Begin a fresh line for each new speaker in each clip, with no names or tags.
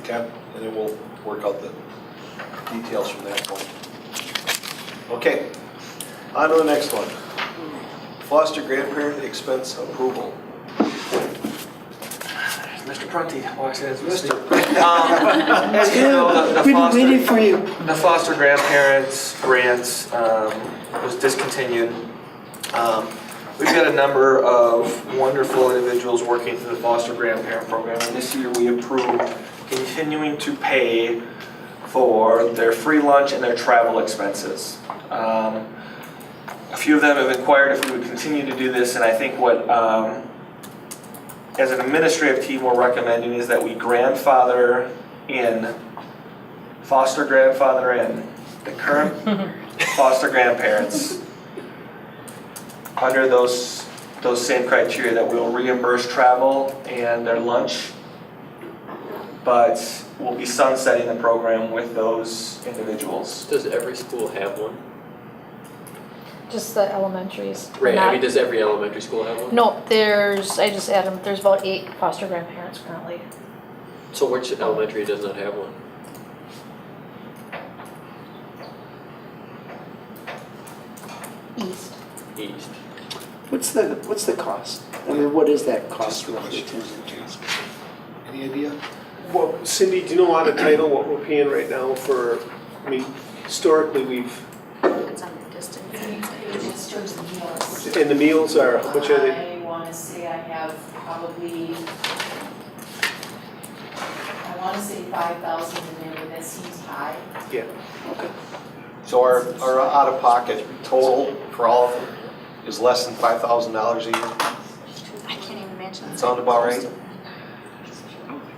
Okay, and then we'll work out the details from that point. Okay, on to the next one. Foster grandparent expense approval.
Mr. Prunty walks in as
Mr.
Mr. Um, As you know, the- the
We've been waiting
foster,
for you.
the foster grandparents grants um, was discontinued. Um, We've got a number of wonderful individuals working through the foster grandparent program. And this year, we approved continuing to pay for their free lunch and their travel expenses. Um, A few of them have inquired if we would continue to do this, and I think what um, as an administrative team, we're recommending is that we grandfather in, foster grandfather in, the current foster grandparents under those, those same criteria that we'll reimburse travel and their lunch. But we'll be sunsetting the program with those individuals.
Does every school have one?
Just the elementaries.
Right, I
not-
mean, does every elementary school have one?
No, there's, I just added, there's about eight foster grandparents currently.
So which elementary does not have one?
East.
East.
What's the, what's the cost? I mean, what is that cost
Just a
roughly?
question. Any idea?
Well, Cindy, do you know on the title what we're paying right now for, I mean, historically, we've,
It's on the distance.
It's just meals.
and the meals are, how much are they?
I wanna say I have probably, I wanna say five thousand in there, but that seems high.
So our, our out-of-pocket total for all of them is less than five thousand dollars a year?
I can't even mention.
Sound about right?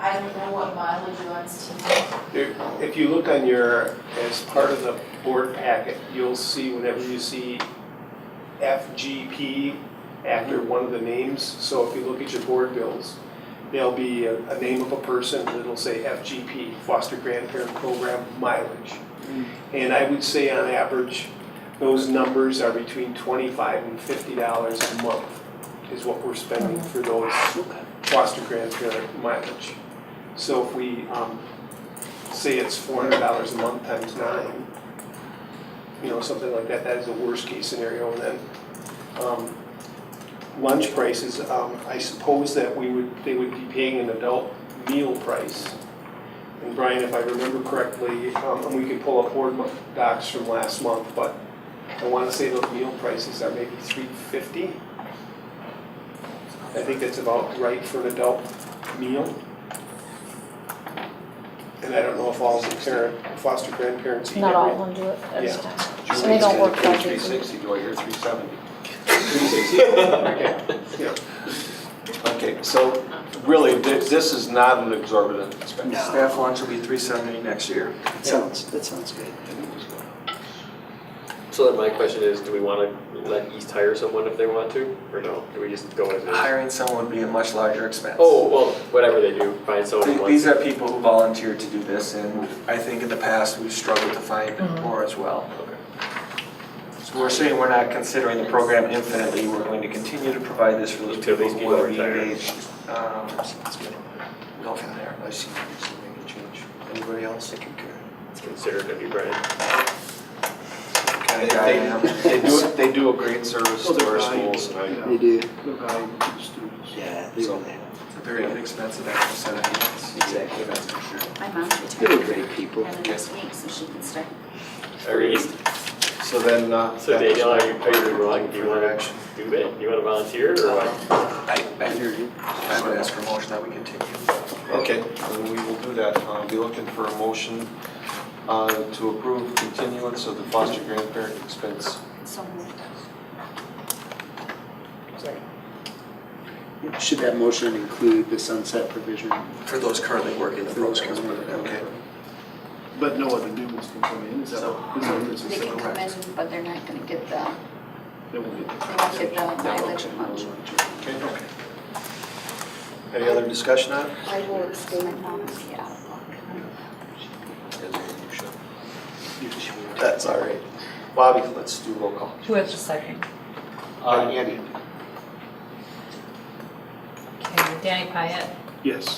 I don't know what mileage runs to,
There- If you look on your, as part of the board packet, you'll see whenever you see FGP after one of the names, so if you look at your board bills, there'll be a, a name of a person that'll say FGP, Foster Grandparent Program mileage. And I would say on average, those numbers are between twenty-five and fifty dollars a month is what we're spending for those foster grandparent mileage. So if we, um, say it's four hundred dollars a month times nine, you know, something like that, that is the worst case scenario, and then, um, lunch prices, um, I suppose that we would, they would be paying an adult meal price. And Brian, if I remember correctly, um, and we could pull up board mo- docs from last month, but I wanna say those meal prices are maybe three fifty. I think that's about right for an adult meal. And I don't know if all the parent, foster grandparents eat
Not all of
every.
them do it every
Yeah.
time. So they don't work five
Three
days a week.
sixty, do I hear three seventy?
Okay, yeah.
Okay, so really, thi- this is not an exorbitant expense.
No.
Staff lunch will be three seventy next year.
That sounds, that sounds good.
So then my question is, do we wanna let East hire someone if they want to, or no? Do we just go as is?
Hiring someone would be a much larger expense.
Oh, well, whatever they do, find someone who
Th-
wants
These are people who volunteered to do this, and I think in the past, we've struggled to find more as well. So we're saying we're not considering the program infinitely, we're going to continue to provide this for those
Until
people
these
who
people
will be
retire.
engaged. Um, Go from there.
I see, I see making a change. Anybody else? Take care.
to consider to be Brian.
Kind
They,
of guy I am.
they- they do, they do a great service to our schools, and I,
They do,
The value to the students.
yeah, they
So-
really have.
It's a very inexpensive actual set of hands.
Exactly.
That's for sure.
My mom's retired.
They were great people.
And next week, so she can start.
For East?
so then, uh.
So
that was
Danielle, are
my
you, are you
favorite
willing,
thing
do you
for
wanna
action.
do it? You wanna volunteer or what?
I, I hear you. I would ask for a motion that we continue.
Okay, then we will do that. I'll be looking for a motion uh, to approve continuance of the foster grandparent expense.
So moved.
Should that motion include the sunset provision?
For those currently working the
For those
programs.
currently working.
Okay.
But no other new ones can come in, is that, is that what
They can come in, but they're not gonna get the,
They won't get-
they won't get the mileage and lunch.
Okay. Any other discussion on it?
I will explain my mom's, yeah.
That's all right. Bobby, let's do roll call.
Who has the second?
Uh, Andy?
Okay, Danny Pyatt,
Yes.